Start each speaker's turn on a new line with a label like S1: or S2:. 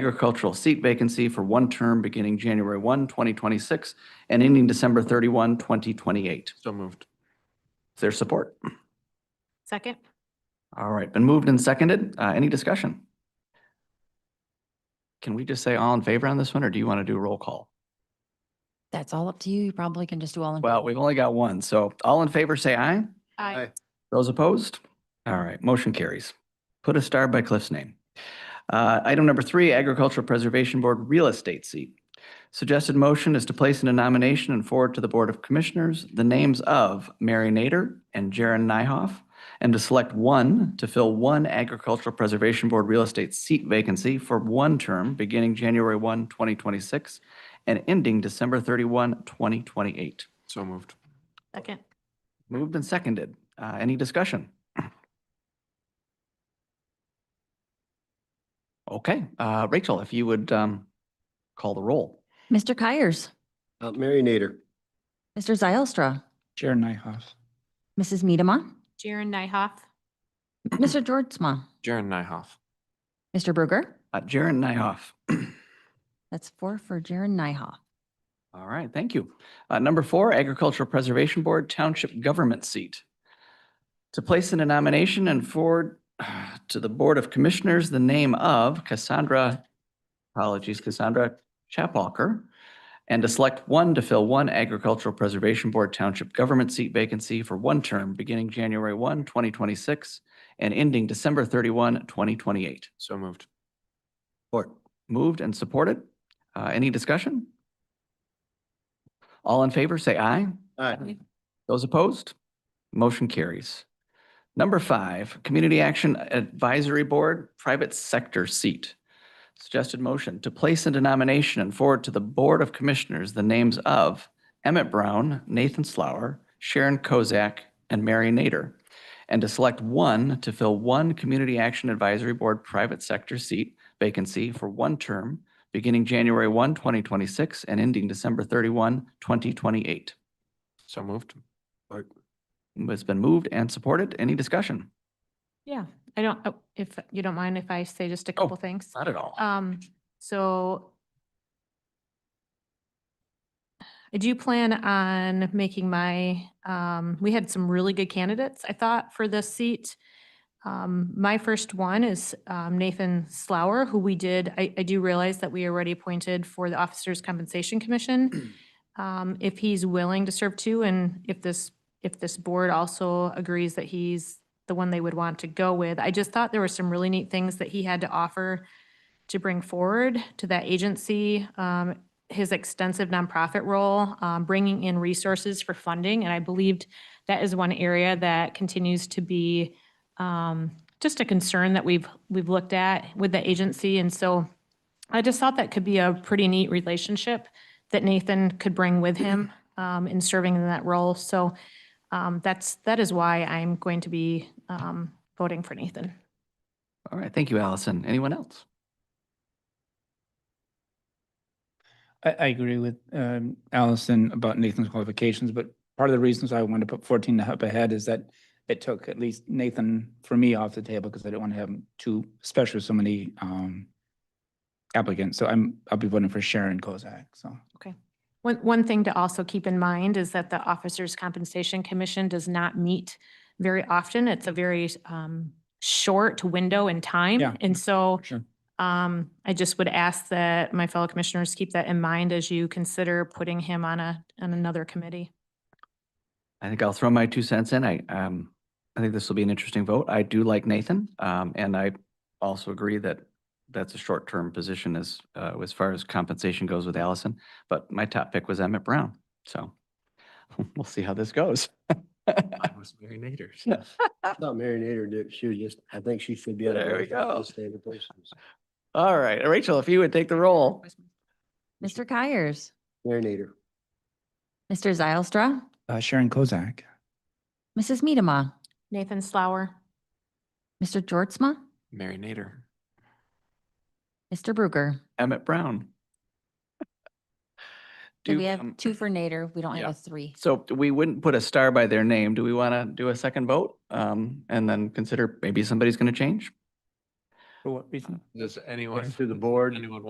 S1: agricultural seat vacancy for one term beginning January 1, 2026 and ending December 31, 2028.
S2: So moved.
S1: Is there support?
S3: Second?
S1: All right, been moved and seconded. Uh, Any discussion? Can we just say all in favor on this one, or do you want to do a roll call?
S4: That's all up to you. You probably can just do all in.
S1: Well, we've only got one, so all in favor, say aye.
S2: Aye.
S1: Those opposed? All right, motion carries. Put a star by Cliff's name. Uh, Item number three, Agricultural Preservation Board Real Estate Seat. Suggested motion is to place in a nomination and forward to the Board of Commissioners the names of Mary Nader and Jaron Nyhoff, and to select one to fill one Agricultural Preservation Board Real Estate Seat vacancy for one term beginning January 1, 2026, and ending December 31, 2028.
S2: So moved.
S3: Second?
S1: Moved and seconded. Uh, Any discussion? Okay, uh, Rachel, if you would um, call the roll.
S4: Mr. Keiers,
S5: Uh, Mary Nader.
S4: Mr. Zylstra,
S6: Jared Nyhoff.
S4: Mrs. Medema,
S3: Jaren Nyhoff?
S4: Mr. Georgezma,
S2: Jaron Nyhoff.
S4: Mr. Bruger.
S1: Uh, Jaren Nyhoff.
S4: That's four for Jaron Nyhoff.
S1: All right, thank you. Uh, Number four, Agricultural Preservation Board Township Government Seat. To place in a nomination and forward to the Board of Commissioners the name of Cassandra, apologies, Cassandra Chapwalker, and to select one to fill one Agricultural Preservation Board Township Government Seat vacancy for one term beginning January 1, 2026, and ending December 31, 2028.
S2: So moved.
S5: Support.
S1: Moved and supported. Uh, Any discussion? All in favor, say aye.
S5: Aye.
S1: Those opposed? Motion carries. Number five, Community Action Advisory Board Private Sector Seat. Suggested motion to place into nomination and forward to the Board of Commissioners the names of Emmett Brown, Nathan Slauer, Sharon Kozak, and Mary Nader, and to select one to fill one Community Action Advisory Board Private Sector Seat vacancy for one term beginning January 1, 2026 and ending December 31, 2028.
S2: So moved.
S1: It's been moved and supported. Any discussion?
S3: Yeah, I don't, oh, if you don't mind if I say just a couple things?
S1: Not at all.
S3: Um, so I do plan on making my, um, we had some really good candidates, I thought, for this seat. Um, my first one is, um, Nathan Slauer, who we did, I, I do realize that we already appointed for the Officers Compensation Commission. Um, if he's willing to serve too, and if this, if this board also agrees that he's the one they would want to go with. I just thought there were some really neat things that he had to offer to bring forward to that agency, um, his extensive nonprofit role, um, bringing in resources for funding. And I believed that is one area that continues to be um, just a concern that we've, we've looked at with the agency. And so I just thought that could be a pretty neat relationship that Nathan could bring with him um, in serving in that role. So um, that's, that is why I'm going to be um, voting for Nathan.
S1: All right. Thank you, Allison. Anyone else?
S6: I, I agree with um, Allison about Nathan's qualifications, but part of the reasons I wanted to put 14 up ahead is that it took at least Nathan for me off the table because I didn't want to have him too, especially with so many um, applicants. So I'm, I'll be voting for Sharon Kozak, so.
S3: One, one thing to also keep in mind is that the Officers Compensation Commission does not meet very often. It's a very um, short window in
S6: Yeah.
S3: time. And so
S6: Sure.
S3: um, I just would ask that my fellow commissioners keep that in mind as you consider putting him on a, on another committee.
S1: I think I'll throw my two cents in. I, um, I think this will be an interesting vote. I do like Nathan. Um, and I also agree that that's a short-term position as, uh, as far as compensation goes with Allison. But my top pick was Emmett Brown. So we'll see how this goes.
S2: That was Mary Nader.
S5: I thought Mary Nader did, she was just, I think she should be. on the
S1: There we
S5: board. That's
S1: go.
S5: the standard places.
S1: All right. Rachel, if you would take the roll.
S4: Mr. Keiers,
S5: Mary Nader.
S4: Mr. Zylstra,
S6: Uh, Sharon Kozak,
S4: Mrs. Medema,
S3: Nathan Slauer,
S4: Mr. Georgezma,
S2: Mary Nader.
S4: Mr. Bruger.
S1: Emmett Brown.
S4: So
S1: Do,
S4: we
S1: um,
S4: have two for Nader. We don't
S2: yeah.
S4: have a three.
S1: So we wouldn't put a star by their name. Do we want to do a second vote? Um, and then consider maybe somebody's going to change?
S7: For what reason?
S2: Does anyone?
S1: To the board.
S2: Anyone